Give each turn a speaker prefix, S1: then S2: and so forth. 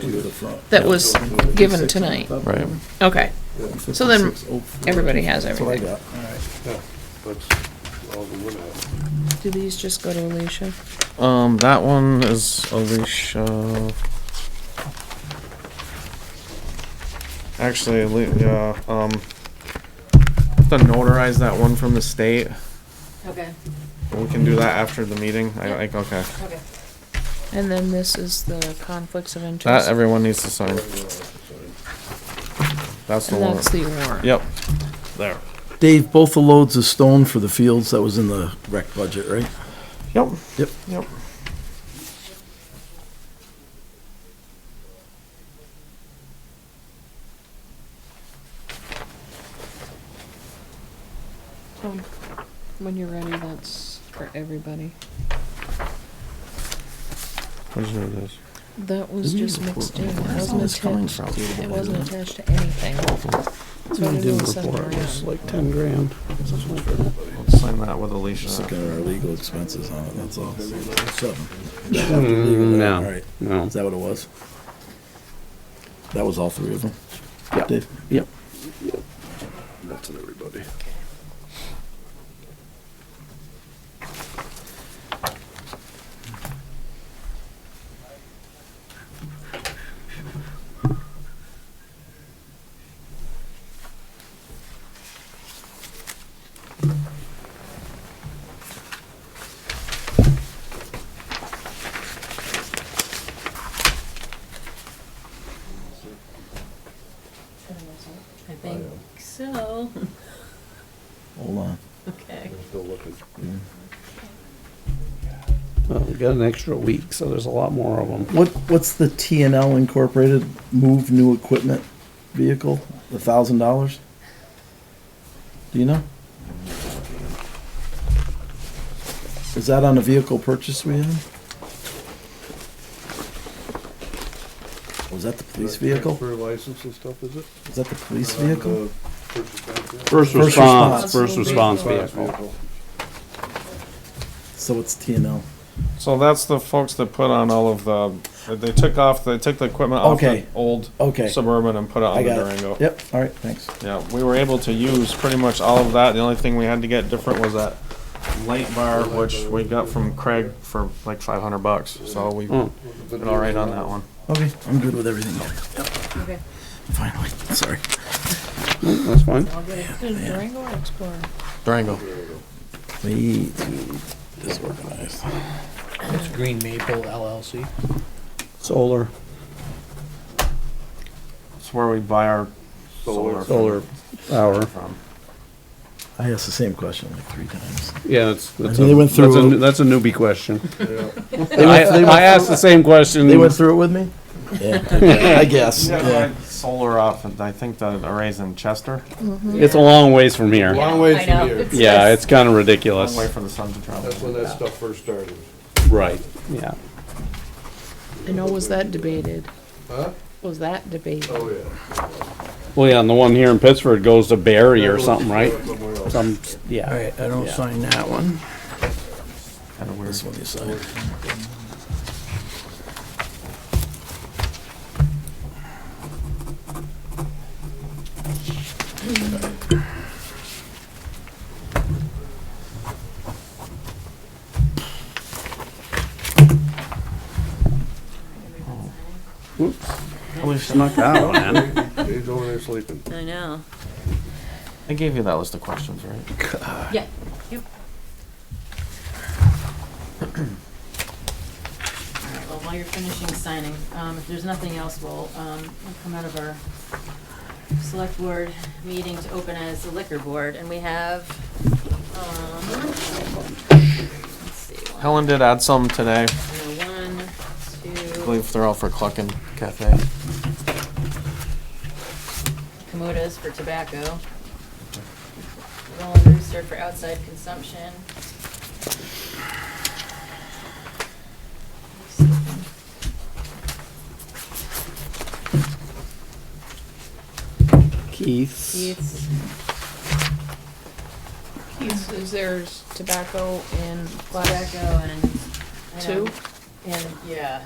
S1: clear the front.
S2: that was given tonight.
S3: Right.
S2: Okay, So then everybody has
S1: That's what I
S2: everything.
S1: got.
S4: Yeah, that's all the wood out.
S2: Do these just go to Alicia?
S3: Um, that one is Alicia. Actually, Ali- yeah, um, have to notarize that one from the state.
S5: Okay,
S3: We can do that after the meeting. I like, okay.
S5: okay.
S2: And then this is the conflicts of
S3: That
S2: interest.
S3: everyone needs to sign. That's the
S2: And
S3: one.
S2: that's the warrant.
S3: Yep. There.
S1: Dave, both the loads of stone for the fields, that was in the rec budget, right?
S3: Yep.
S1: Yep.
S3: Yep.
S2: Um, When you're ready, that's for everybody.
S3: I just know this.
S2: That was just mixed in. It
S1: Where's all
S2: wasn't
S1: this coming
S2: attached,
S1: from?
S2: it wasn't attached to anything. So I didn't send it around.
S6: like ten grand.
S3: Let's sign that with Alicia.
S1: Just looking at our legal expenses on it, that's all. Seven. All
S6: Mm, No,
S1: right,
S6: no.
S1: is that what it was? That was all three of them?
S6: Yeah.
S1: Dave?
S6: Yep.
S4: That's it, everybody.
S5: I think so.
S1: Hold on.
S5: Okay.
S4: I'm Still looking.
S6: Well, we got an extra week, so there's a lot more of them.
S1: What, what's the T and L Incorporated move new equipment vehicle, the thousand dollars? Do you know? Is that on a vehicle purchase we have? Was Oh, that the police vehicle?
S4: For license and stuff, is it?
S1: Is that the police vehicle?
S4: Uh, purchase back there?
S6: First
S1: First
S6: response,
S1: response.
S6: first response
S4: Response
S6: vehicle.
S1: So it's T and L.
S3: So that's the folks that put on all of the, they took off, they took the equipment off the
S1: Okay.
S3: old
S1: Okay.
S3: Suburban and put it
S1: I
S3: on the
S1: got it.
S3: Durango.
S1: Yep, all right, thanks.
S3: Yeah, we were able to use pretty much all of that. The only thing we had to get different was that light bar, which we got from Craig for like five hundred bucks. So we
S6: Hmm.
S3: did all right on that one.
S1: Okay, I'm good with everything.
S5: Okay.
S1: Finally, sorry.
S6: That's fine.
S5: I'll get it.
S2: Is Durango or Explorer?
S3: Durango.
S1: Way too disorganized.
S7: It's Green Maple LLC.
S6: Solar,
S3: It's where we buy our
S4: Solar.
S3: solar.
S6: solar power.
S3: From.
S1: I asked the same question like three times.
S6: Yeah, that's, that's
S1: I
S6: a,
S1: mean, they went
S6: that's a,
S1: through-
S6: new- that's a newbie question.
S1: They
S6: I,
S1: went- they went
S6: I asked the same question.
S1: They went through it with me? Yeah, I guess.
S3: Yeah, solar off. and I think the arrays in Chester.
S6: It's a long ways from here.
S4: Long way
S5: I know.
S4: from here.
S6: Yeah, it's kind of
S3: Long
S6: ridiculous.
S3: way for the sun to travel.
S4: That's when that stuff first started.
S6: Right, yeah.
S2: I know, was that debated?
S4: Huh?
S2: Was that debated?
S4: Oh, yeah.
S6: Well, yeah, and the one here in Pittsburgh goes to Barry or something, right?
S4: Somewhere else.
S6: Some, yeah.
S7: I don't
S6: Yeah.
S7: sign that one.
S3: Kinda weird.
S1: This one you signed.
S6: We snuck that one in.
S4: Dave's over there sleeping.
S5: I know.
S3: I gave you that list of questions, right?
S5: Yeah. Yep. Alright, Well, while you're finishing signing, um, if there's nothing else, we'll, um, we'll come out of our select board meeting to open as the liquor board, and we have, um, let's see, one,
S3: Helen did add some today.
S5: one,
S3: I
S5: two,
S3: believe they're all for Cluckin Cafe.
S5: Komodas for tobacco. Rolling Rooster for outside consumption.
S6: Keith's.
S5: Keith's,
S2: Keith's, is there's tobacco in glass
S5: tobacco and. I
S2: two?
S5: don't- And, yeah,